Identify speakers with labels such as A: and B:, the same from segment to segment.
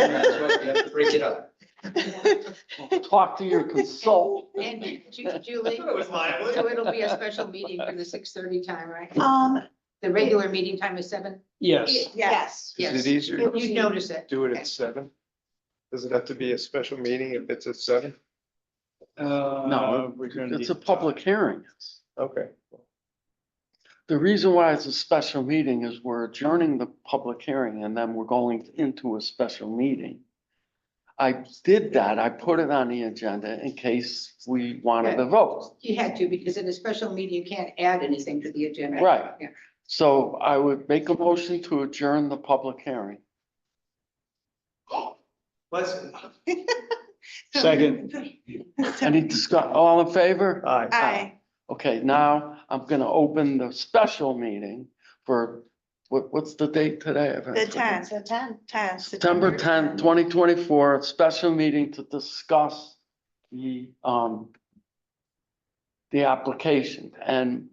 A: That's what we have to break it up.
B: Talk to your consultant.
C: And Ju- Julie,
D: It was lively.
C: so it'll be a special meeting for the six thirty time, right?
E: Um,
C: The regular meeting time is seven?
B: Yes,
E: yes.
A: Is
C: Yes,
A: it easier to
C: you notice it.
A: do it at seven? Does it have to be a special meeting if it's at seven?
B: no, uh, it's a public hearing.
A: Okay.
B: The reason why it's a special meeting is we're adjourning the public hearing and then we're going into a special meeting. I did that. I put it on the agenda in case we wanted to vote.
C: You had to, because in a special meeting, you can't add anything to the agenda.
B: Right.
C: Yeah.
B: So I would make a motion to adjourn the public hearing.
D: Let's,
F: Second.
B: Any discuss, all in favor?
A: Aye.
E: Aye.
B: Okay, now I'm gonna open the special meeting for, what, what's the date today?
E: The tenth. The ten. Ten.
B: September tenth, twenty twenty-four, special meeting to discuss the, um, the application, and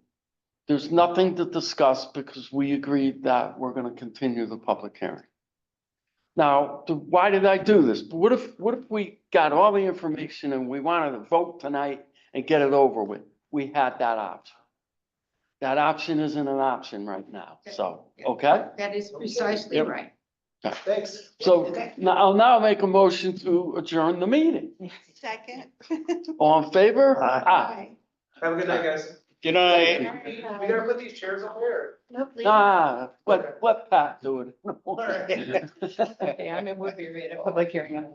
B: there's nothing to discuss because we agreed that we're gonna continue the public hearing. Now, th- why did I do this? What if, what if we got all the information and we wanted to vote tonight and get it over with? We had that option. That option isn't an option right now, so, okay?
C: That is precisely
B: Yep.
C: right.
D: thanks.
B: So now I'll now make a motion to adjourn the meeting.
E: Second.
B: All in favor?
A: Aye.
D: Have a good night, guys.
F: Good night.
D: We gotta put these chairs over here.
E: Nope, leave it.
B: Ah, let, let Pat do it.
D: All right.
G: Okay, I'm in Woodbury at a public hearing on